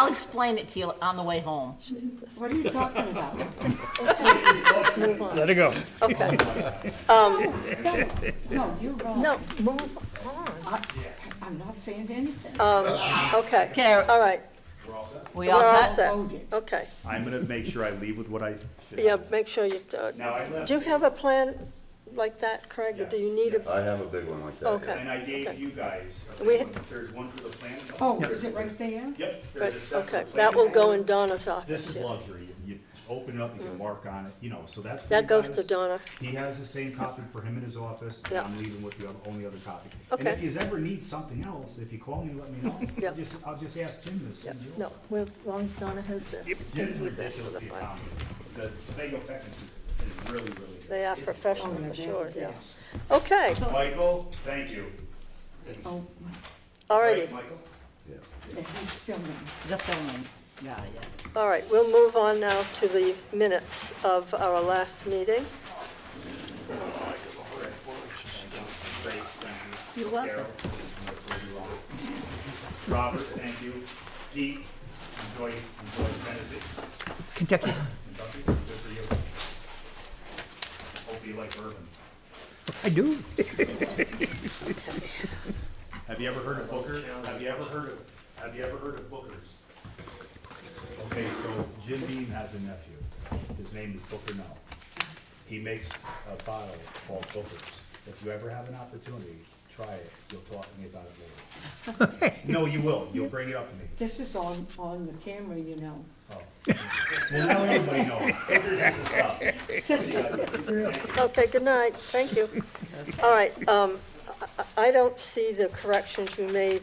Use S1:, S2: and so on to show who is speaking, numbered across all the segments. S1: I'll explain it to you on the way home.
S2: What are you talking about?
S3: Let's move on.
S4: Let it go.
S3: Okay.
S2: No, you're wrong.
S3: No, move on.
S2: I- I'm not saying anything.
S3: Okay.
S1: Okay.
S3: All right.
S1: We
S3: We're
S1: all
S3: all
S1: set?
S3: set.
S2: Voted.
S3: Okay.
S5: I'm gonna make sure I leave with what I should.
S3: Yeah, make sure you, uh,
S5: Now, I left,
S3: do you have a plan like that, Craig? Or do you need a,
S6: I have a big one like that.
S3: Okay.
S5: and I gave you guys, a
S3: We-
S5: big one. there's one for the plan.
S2: Oh, is it right there?
S5: Yep,
S3: but,
S5: there's a separate
S3: okay,
S5: plan.
S3: that will go in Donna's office.
S5: This is
S3: yes. Mm.
S5: luxury, you you open it up, you can mark on it, you know, so that's. for
S3: That
S5: you
S3: goes
S5: guys.
S3: to Donna.
S5: He has the same copy for him in his office, and
S3: Yeah.
S5: I'm leaving with the other- only other copy. And
S3: Okay.
S5: if you ever need something else, if you call me, let me know.
S3: Yeah.
S5: I'll just, I'll just ask Jim to
S3: Yeah,
S5: send you.
S3: no, we're- as long as Donna has this.
S5: Jim's
S3: We'll do that for
S5: ridiculous,
S3: the
S5: the
S3: file.
S5: economy. The Sebago Technics is is really, really good.
S3: They are professional,
S2: Oh,
S3: for
S2: they're
S3: sure,
S2: the
S3: yeah.
S2: best.
S3: Okay,
S5: Michael, thank you.
S2: Oh, my,
S3: all
S5: Right,
S3: righty,
S5: Michael?
S2: that he's filming.
S1: The filming, yeah, yeah.
S3: all right. We'll move on now to the minutes of our last meeting.
S5: Grace, thank you.
S1: You're welcome.
S5: Carol, you're wrong. Robert, thank you. Pete, enjoy, enjoy Tennessee.
S4: Kentucky.
S5: Kentucky, good for you. Hope you like bourbon.
S4: I do.
S5: Have you ever heard of Booker? Have you ever heard of, have you ever heard of Bookers? Okay, so Jim Beam has a nephew. His name is Booker Null. He makes a bottle called Bookers. If you ever have an opportunity, try it. You'll talk to me about it later. No, you will. You'll bring it up to me.
S2: This is on, on the camera, you know.
S5: Well, now everybody knows. Bookers is the stuff. See you guys.
S3: Okay, good night, thank you. All right, um, I- I I don't see the corrections you made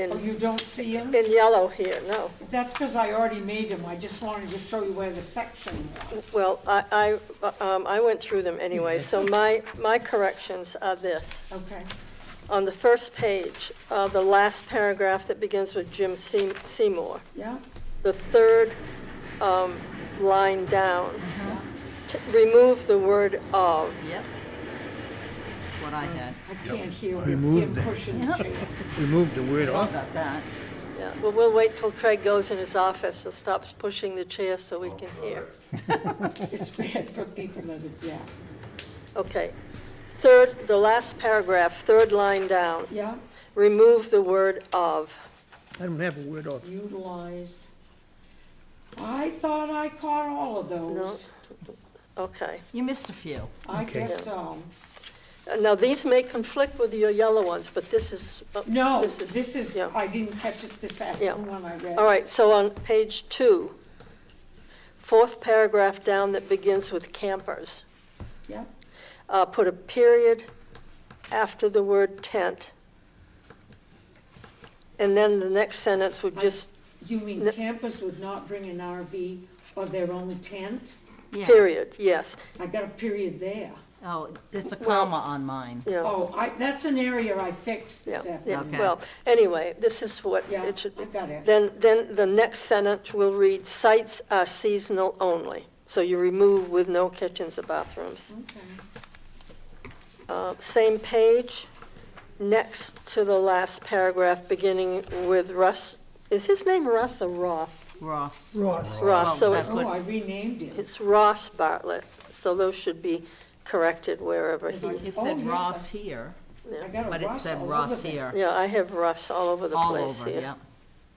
S2: Oh,
S3: in,
S2: you don't see him?
S3: in yellow here, no.
S2: That's because I already made him. I just wanted to show you where the section was.
S3: Well, I, I, um, I went through them anyway, so my, my corrections are this.
S2: Okay,
S3: On the first page, uh, the last paragraph that begins with Jim Seam- Seymour,
S2: yeah?
S3: the third, um, line down, t- remove the word of.
S1: Yep. That's what I had.
S2: I can't hear him
S4: Remove that.
S2: pushing the chair.
S4: We moved the word
S1: All
S4: off.
S1: got that.
S3: Yeah, well, we'll wait till Craig goes in his office and stops pushing the chair so we can hear.
S2: It's bad for people that are deaf.
S3: Okay. Third, the last paragraph, third line down,
S2: Yeah,
S3: remove the word "of."
S4: I don't have a word off.
S2: utilize. I thought I caught all of those.
S3: Okay.
S1: You missed a few.
S2: I guess so.
S3: Uh, Now, these may conflict with your yellow ones, but this is. uh,
S2: No,
S3: is-
S2: this is,
S3: yeah.
S2: I didn't catch it this afternoon when I read.
S3: All right, so on page two, fourth paragraph down that begins with campers,
S2: Yeah,
S3: uh, put a period after the word tent. And then the next sentence would just,
S2: you mean
S3: No.
S2: campers would not bring an RV or their own tent?
S1: Yeah.
S3: period, yes,
S2: I got a period there.
S1: Oh, it's a
S3: Well-
S1: comma on mine.
S3: yeah.
S2: Oh, I, that's an area I fixed
S3: Yeah,
S2: this
S3: yeah,
S2: afternoon.
S1: Okay.
S3: well, anyway, this is what
S2: Yeah,
S3: it should be.
S2: I got it.
S3: Then, then the next sentence will read, "Sites are seasonal only." So you remove with no kitchens or bathrooms.
S2: Okay.
S3: Uh, Same page, next to the last paragraph, beginning with Russ, is his name Russ or Ross?
S1: Ross.
S4: Ross.
S1: Well,
S3: Ross, so
S1: that's
S3: it's-
S2: Oh,
S1: what-
S2: I renamed it.
S3: it's Ross Bartlett, so those should be corrected wherever he is.
S1: It
S2: Oh,
S1: said
S2: yes,
S1: Ross here,
S2: I got a
S1: but it
S2: Ross
S1: said
S2: all
S1: Ross
S2: over there.
S1: here,
S3: Yeah, I have Russ all over the
S1: all
S3: place
S1: over,
S3: here.
S1: yeah.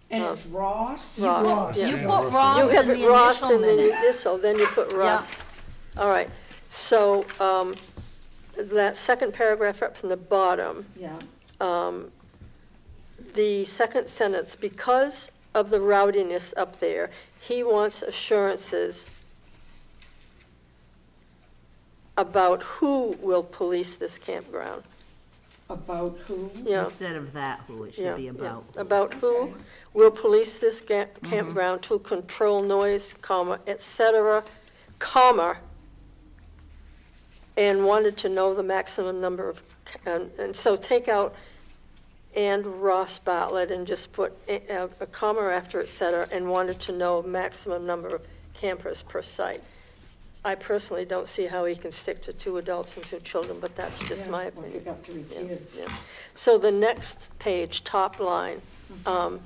S2: And it's Ross.
S3: Oh. Ross, yeah.
S1: You put Ross
S3: You
S1: in
S3: have
S1: the
S3: it Ross
S1: initial
S3: and then you
S1: minutes.
S3: initial, then you put Ross. All right, so, um, that second paragraph up from the bottom,
S2: Yeah,
S3: the second sentence, because of the rowdiness up there, he wants assurances about who will police this campground.
S2: about who?
S3: Yeah,
S1: Instead of that, who it
S3: yeah,
S1: should be
S3: yeah.
S1: about. Mm-hmm.
S3: About who
S2: Okay.
S3: will police this ga- campground to control noise, comma, et cetera, comma, and wanted to know the maximum number of, c- and, and so take out and Ross Bartlett and just put a, a comma after et cetera, and wanted to know maximum number of campers per site. I personally don't see how he can stick to two adults and two children, but that's just
S2: Yeah,
S3: my
S2: well, If you
S3: opinion.
S2: got three
S3: Yeah,
S2: kids.
S3: yeah. So the next page, top line, um,